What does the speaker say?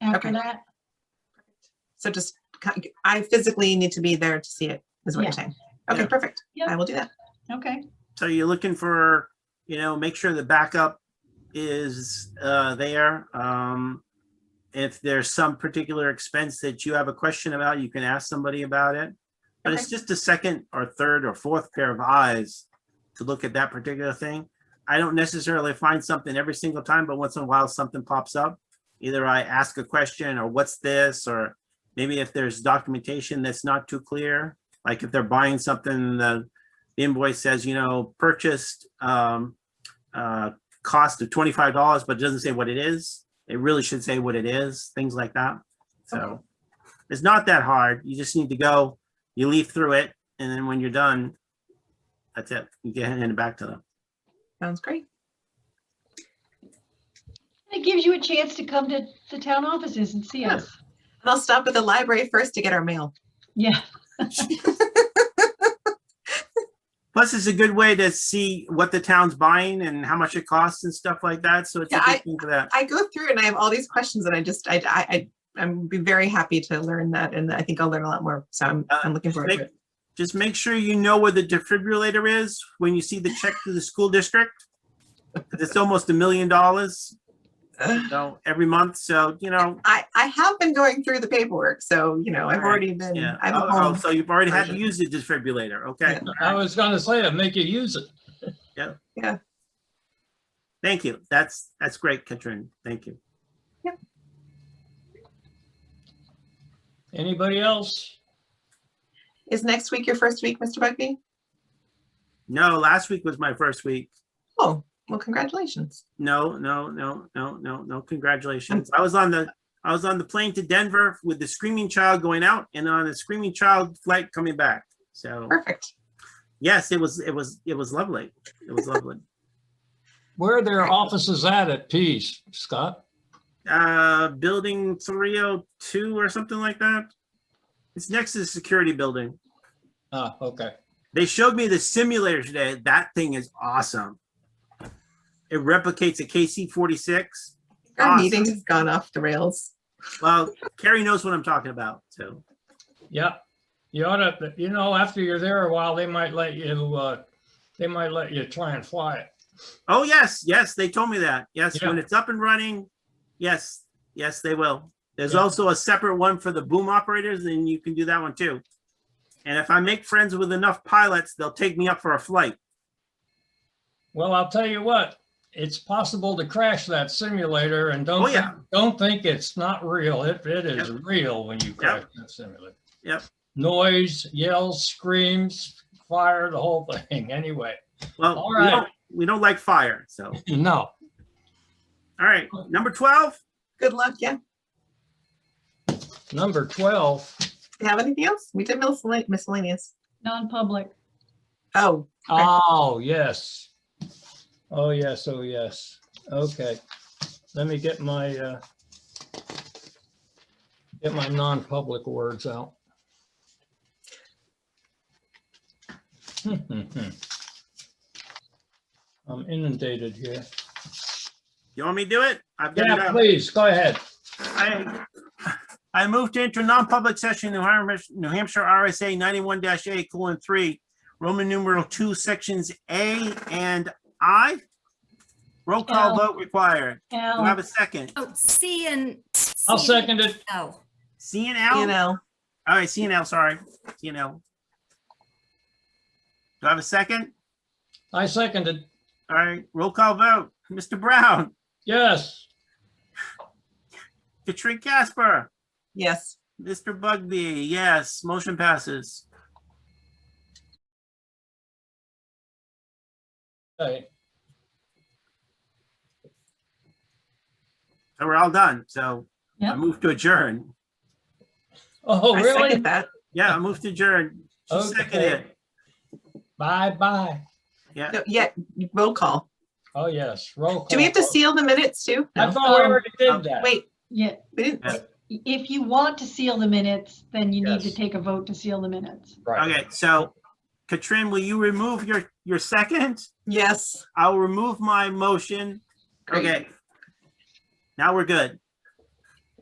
after Okay. that. So just, c- I physically need to be there to see it, is what Yeah. you're saying. Okay, Yeah. perfect. Yeah. I will do that. Okay, So you're looking for, you know, make sure the backup is uh, there. Um, If there's some particular expense that you have a question about, you can ask somebody about it. But it's Okay. just a second or third or fourth pair of eyes to look at that particular thing. I don't necessarily find something every single time, but once in a while, something pops up. Either I ask a question or what's this, or maybe if there's documentation that's not too clear, like if they're buying something, the the invoice says, you know, purchased, um, uh, cost of twenty-five dollars, but it doesn't say what it is. It really should say what it is, things like that. So it's not that hard. You just need to go, you leaf through it, and then when you're done, that's it. You can hand it back to them. Sounds great. it gives you a chance to come to the town offices and see Yeah. us. And I'll stop at the library first to get our mail. Yeah, Plus, it's a good way to see what the town's buying and how much it costs and stuff like that. So it's a Yeah, I- good thing for that. I go through and I have all these questions and I just, I, I, I- I'm be very happy to learn that and I think I'll learn a lot more. So I'm, Uh, I'm looking forward make- to it. Just make sure you know where the defibrillator is when you see the check to the school district. 'Cause It's almost a million dollars Ugh. So every month, so, you know, I, I have been going through the paperwork, so, you know, I've Alright, already been, yeah. I'm Oh, oh, home. So you've already had to version. use the defibrillator, okay? I was gonna say, I'd make you use it. Thank you. That's, that's great, Katrin. Thank you. Anybody else? Is next week your first week, Mr. Bugby? No, last week was my first week. Oh, well, congratulations. No, no, no, no, no, no, congratulations. I was on the, I was on the plane to Denver with the screaming child going out and on a screaming child flight coming back. So, Perfect. yes, it was, it was, it was lovely. It was lovely. Where are their offices at at Pease, Scott? Uh, building three oh two or something like that. It's next to the security building. Ah, okay. They showed me the simulator today. That thing is awesome. It replicates a KC forty six. Our Awesome. meeting has gone off the rails. Well, Carrie knows what I'm talking about, so. Yeah. You ought to, you know, after you're there a while, they might let you, uh, they might let you try and fly it. Oh, yes, yes, they told me that. Yes, Yeah. when it's up and running, yes, yes, they will. There's Yeah. also a separate one for the boom operators, and you can do that one too. And if I make friends with enough pilots, they'll take me up for a flight. Well, I'll tell you what, it's possible to crash that simulator and Oh, don't, yeah. think- don't think it's not real. It, it is real when you crash that simulator. Yep. Noise, yells, screams, fire, the whole thing. Anyway, Well, All we right. don't, we don't like fire, so. no. All right, number twelve? Good luck. Yeah. Number 12, Do you have anything else? We did miscel- miscellaneous. non-public. Oh, Okay. Oh, yes. Oh, yes, oh, yes. Okay. Let me get my, uh, get my non-public words out. I'm inundated here. You want me to do it? I've got it Yeah, up. please, go ahead. I, I moved to enter non-public session, New Hampshire, New Hampshire RSA ninety-one A colon three, Roman numeral two, sections A and I. Roll call Al. vote required. Do I have Al, a second? Oh, C and. I'll C and second it. L. C and you L? know, All right, C and L, sorry, C and L. Do I have a second? I seconded. All right, roll call vote. Mr. Brown, Yes, Katrin Casper, yes. Mr. Bugby, yes, motion passes. Okay. So we're all done, so I Yep. move to adjourn. Oh, I really? second that. Yeah, I move to adjourn. She Okay. seconded it. Bye-bye. Yeah. No, yeah, roll call. Oh, yes, roll call. Do we have to seal the minutes too? I No. thought we already Oh, did that. Wait, yeah, we didn't. Yeah. if you want to seal the minutes, then you need to Yes. take a vote to seal the minutes. Right. Okay, so Katrin, will you remove your, your second? Yes. I'll remove my motion. Great. Okay. Now we're good.